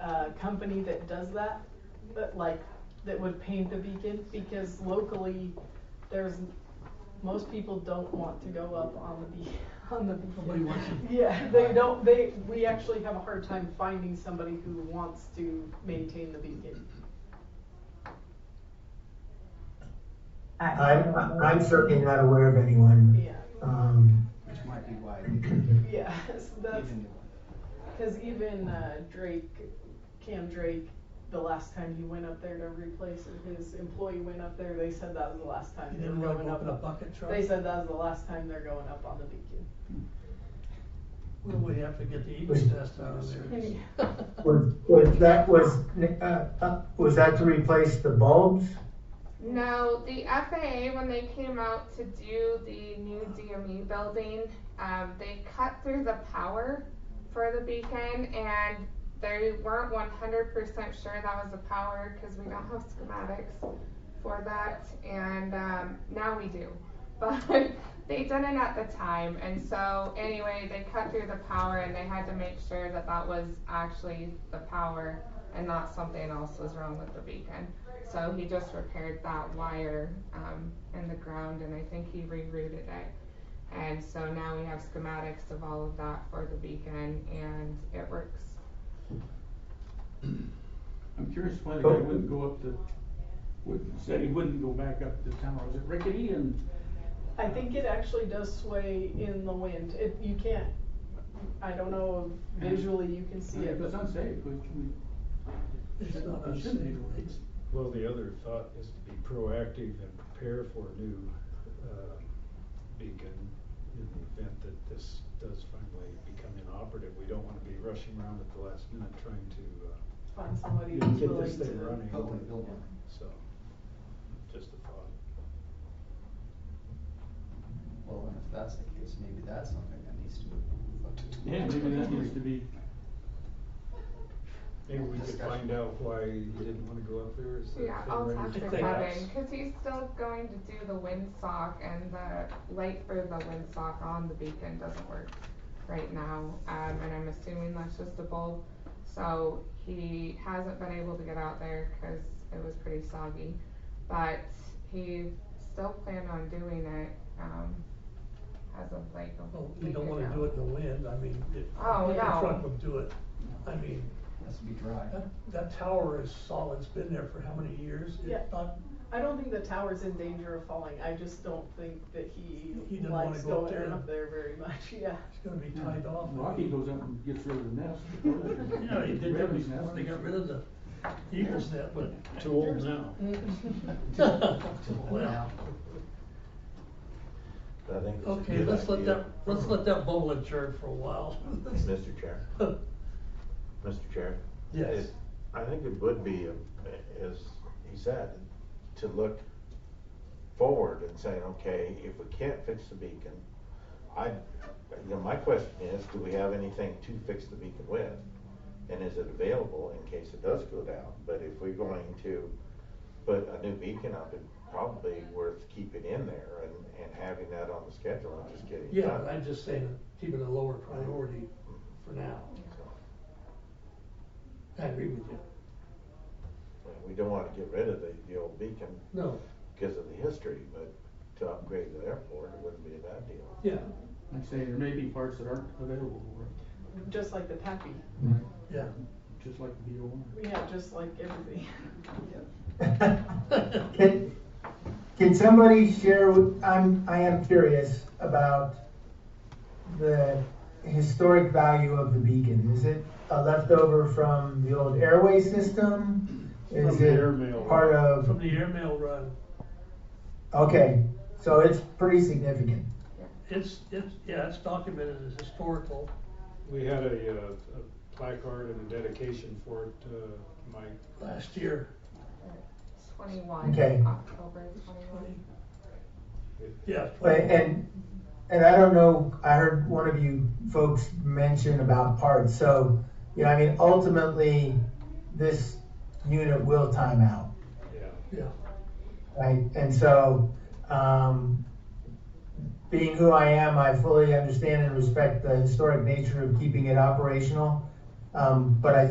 uh, company that does that, but like, that would paint the beacon, because locally, there's, most people don't want to go up on the be, on the beacon. Nobody wants to- Yeah, they don't, they, we actually have a hard time finding somebody who wants to maintain the beacon. I'm, I'm certainly not aware of anyone. Yeah, Um, Which might be why they didn't yeah, so that's, even. Because even uh, Drake, Cam Drake, the last time he went up there to replace it, his employee went up there, they said that was the last time You they never were like going open up. a bucket truck? They said that was the last time they're going up on the beacon. Well, we have to get the eaves test out of there. was, was that, was, uh, uh, was that to replace the bulbs? No, the FAA, when they came out to do the new DME building, um, they cut through the power for the beacon and they weren't one hundred percent sure that was the power, cause we don't have schematics for that, and, um, now we do. But they didn't at the time, and so, anyway, they cut through the power and they had to make sure that that was actually the power and not something else was wrong with the beacon. So he just repaired that wire um, in the ground and I think he rerouted it. And so now we have schematics of all of that for the beacon and it works. I'm curious why the guy wouldn't go up to, would, said he wouldn't go back up to town, was it rickety and? I think it actually does sway in the wind. It, you can't, I don't know, if visually you can see it, It's but unsafe, we, we, It's not we us. shouldn't need it. It's- Well, the other thought is to be proactive and prepare for a new uh, beacon in the event that this does finally become inoperative. We don't want to be rushing around at the last minute trying to, uh, find somebody you know, who's willing get this thing to. running. Help and build one. So, just a thought. Well, and if that's the case, maybe that's something that needs to be looked at. Yeah, maybe that needs to be, Maybe we could Discussion. find out why he didn't want to go up there. Is that Yeah, thing I'll ready? talk to Thank you. Kevin because he's still going to do the windsock and the light for the windsock on the beacon doesn't work right now. Um, and I'm assuming that's just a bulb. So he hasn't been able to get out there because it was pretty soggy. But he still planned on doing it um, as of like a Well, week Oh, you don't wanna ago. do it in the wind, I mean, if Oh, bucket no. truck would do it, I mean, Has to be dry. that, that tower is solid, it's been there for how many years? It's Yeah. not- I don't think the tower's in danger of falling. I just don't think that he He didn't wanna likes go up going there. up there very much, yeah. It's gonna be tied off. Rocky goes up and gets rid of the nest. Yeah, he did that Raven's before, nest. they got rid of the eagle's net, but. Too old now. Well, I think it's a Okay, good let's let idea. that, let's let that bubble adjourn for a while. Mr. Chair, Mr. Chair. Yes. it- I think it would be, uh, as he said, to look forward and say, okay, if we can't fix the beacon, I, you know, my question is, do we have anything to fix the beacon with? And is it available in case it does go down? But if we're going to put a new beacon up, it's probably worth keeping in there and, and having that on the schedule and just getting it Yeah, done. but I'm just saying, keep it a lower priority for now. So. I agree with you. And We don't want to get rid of the, the old beacon No, because of the history, but to upgrade the airport, it wouldn't be a bad deal. yeah, Like I say, there may be parts that aren't available, or Just like the tappy. yeah. just like the B O one. Yeah, just like everything. Can, can somebody share, with- I'm, I am curious about the historic value of the beacon. Is it a leftover from the old airway system? From Is the air mail. it part From of, the airmail run, okay, so it's pretty significant. it's, it's, yeah, it's documented as historical. We had a, uh, a placard and a dedication for it, uh, Mike. Last year, 21, Okay. October 21. yeah. But, and, and I don't know, I heard one of you folks mention about parts, so, you know, I mean, ultimately, this unit will time out. Yeah. Yeah, Right, and so, um, being who I am, I fully understand and respect the historic nature of keeping it operational. Um, but I